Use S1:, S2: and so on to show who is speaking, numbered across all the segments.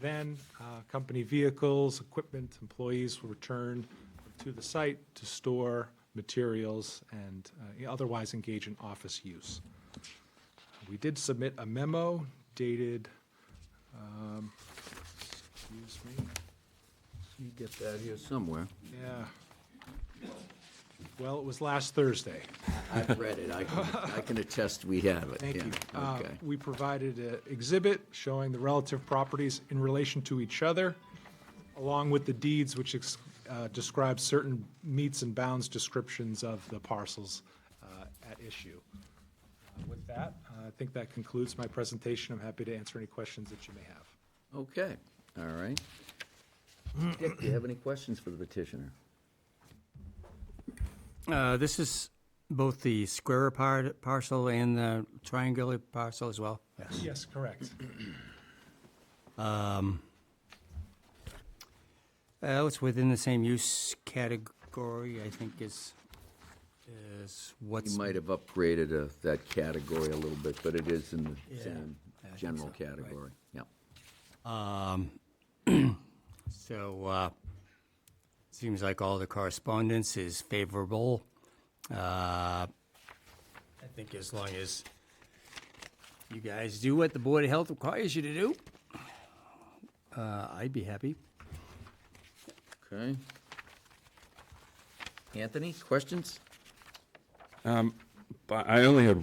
S1: Then, uh, company vehicles, equipment, employees will return to the site to store materials and uh, otherwise engage in office use. We did submit a memo dated, um, excuse me,
S2: You get that here somewhere.
S1: yeah. Well, it was last Thursday.
S2: I've read it. I can, I can attest we have it.
S1: Thank
S2: yeah.
S1: you. Uh,
S2: Okay.
S1: We provided an exhibit showing the relative properties in relation to each other, along with the deeds which ex- uh, describe certain meets and bounds descriptions of the parcels uh, at issue. Uh, With that, uh, I think that concludes my presentation. I'm happy to answer any questions that you may have.
S2: Okay, all right. Dick, do you have any questions for the petitioner?
S3: Uh, This is both the square par- parcel and the triangular parcel as well?
S1: Yes, correct.
S3: Uh, It's within the same use category, I think, is, is
S2: You
S3: what's...
S2: might have upgraded uh, that category a little bit, but it is in the
S3: Yeah,
S2: same
S3: I think
S2: general
S3: so, right.
S2: category. Yeah.
S3: um, So, uh, seems like all the correspondence is favorable. Uh, I think as long as you guys do what the Board of Health requires you to do, uh, I'd be happy.
S2: Okay. Anthony, questions?
S4: But I only had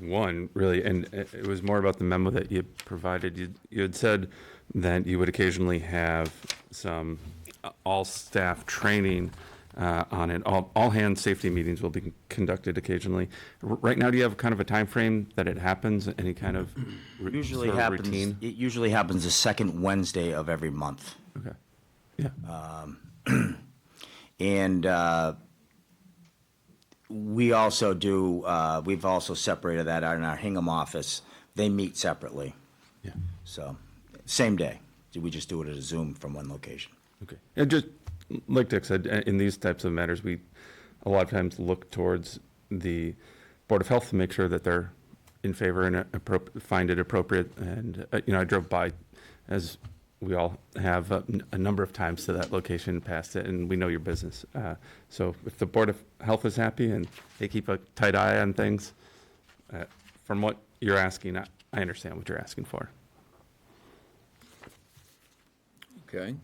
S4: one really, and it it was more about the memo that you provided. You, you had said that you would occasionally have some uh, all-staff training uh, on it. All, all-hand safety meetings will be conducted occasionally. R- Right now, do you have kind of a time frame that it happens? Any kind of ru-
S5: Usually
S4: sort of
S5: happens.
S4: routine?
S5: It usually happens the second Wednesday of every month,
S4: Okay. Yeah.
S5: Uh, and uh, we also do. Uh, we've also separated that out in our Hingham office. They meet separately,
S4: yeah.
S5: so same day. We just do it at a Zoom from one location.
S4: Okay. And just, like Dick said, i- in these types of matters, we a lot of times look towards the Board of Health to make sure that they're in favor and appro- find it appropriate. And, uh, you know, I drove by, as we all have, uh, n- a number of times to that location, past it, and we know your business. Uh, So if the Board of Health is happy and they keep a tight eye on things, uh, from what you're asking, I I understand what you're asking for.
S2: Okay.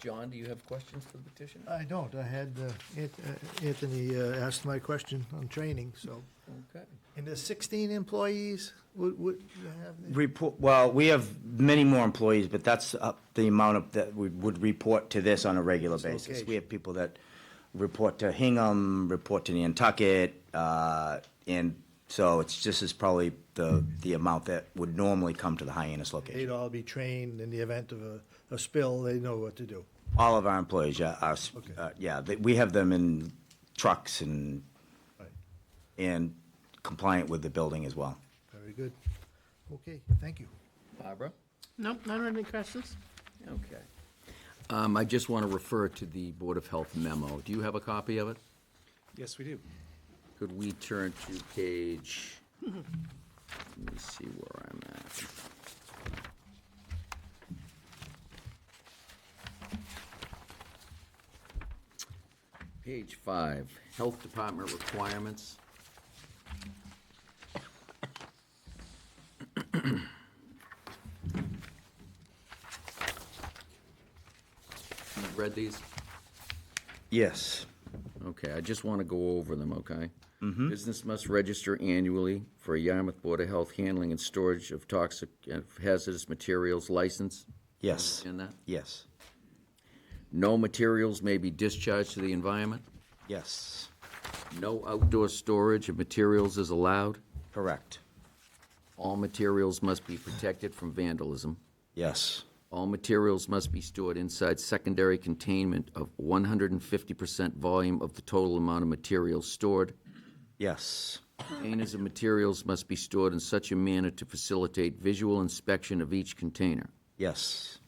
S2: John, do you have questions for the petitioner?
S6: I don't. I had uh, Ant- uh, Anthony uh, asked my question on training, so.
S2: Okay.
S6: And there's 16 employees, would, would you have? there?
S5: Report. Well, we have many more employees, but that's uh, the amount of that we would report to this on a regular basis. We
S6: location.
S5: have people that report to Hingham, report to Nantucket, uh, and so it's just is probably the the amount that would normally come to the Hyannis
S6: They'd
S5: location.
S6: all be trained in the event of a, a spill, they know what to do.
S5: All of our employees, yeah, are s-
S6: Okay.
S5: uh, yeah, they, we have them in trucks and
S6: Right.
S5: and compliant with the building as well.
S6: Very good. Okay, thank you.
S2: Barbara?
S7: Nope, I don't have any questions.
S2: Okay. Um, I just want to refer to the Board of Health memo. Do you have a copy of it?
S1: Yes, we do.
S2: Could we turn to page, let me see where I'm at. Page five, Health Department requirements. You've Read these?
S5: Yes.
S2: Okay, I just want to go over them, okay? Business must register annually for a Yarmouth Board of Health handling and storage of toxic uh, hazardous materials license.
S5: Yes.
S2: In that?
S5: Yes.
S2: No materials may be discharged to the environment.
S5: Yes.
S2: No outdoor storage of materials is allowed.
S5: Correct.
S2: All materials must be protected from vandalism.
S5: Yes.
S2: All materials must be stored inside secondary containment of one hundred and fifty percent volume of the total amount of materials stored.
S5: Yes.
S2: Containers and materials must be stored in such a manner to facilitate visual inspection of each container.
S5: Yes.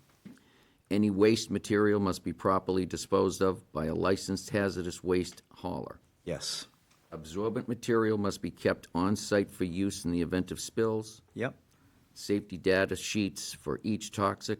S2: Any waste material must be properly disposed of by a licensed hazardous waste hauler.
S5: Yes.
S2: Absorbent material must be kept on-site for use in the event of spills.
S5: Yep.
S2: Safety data sheets for each toxic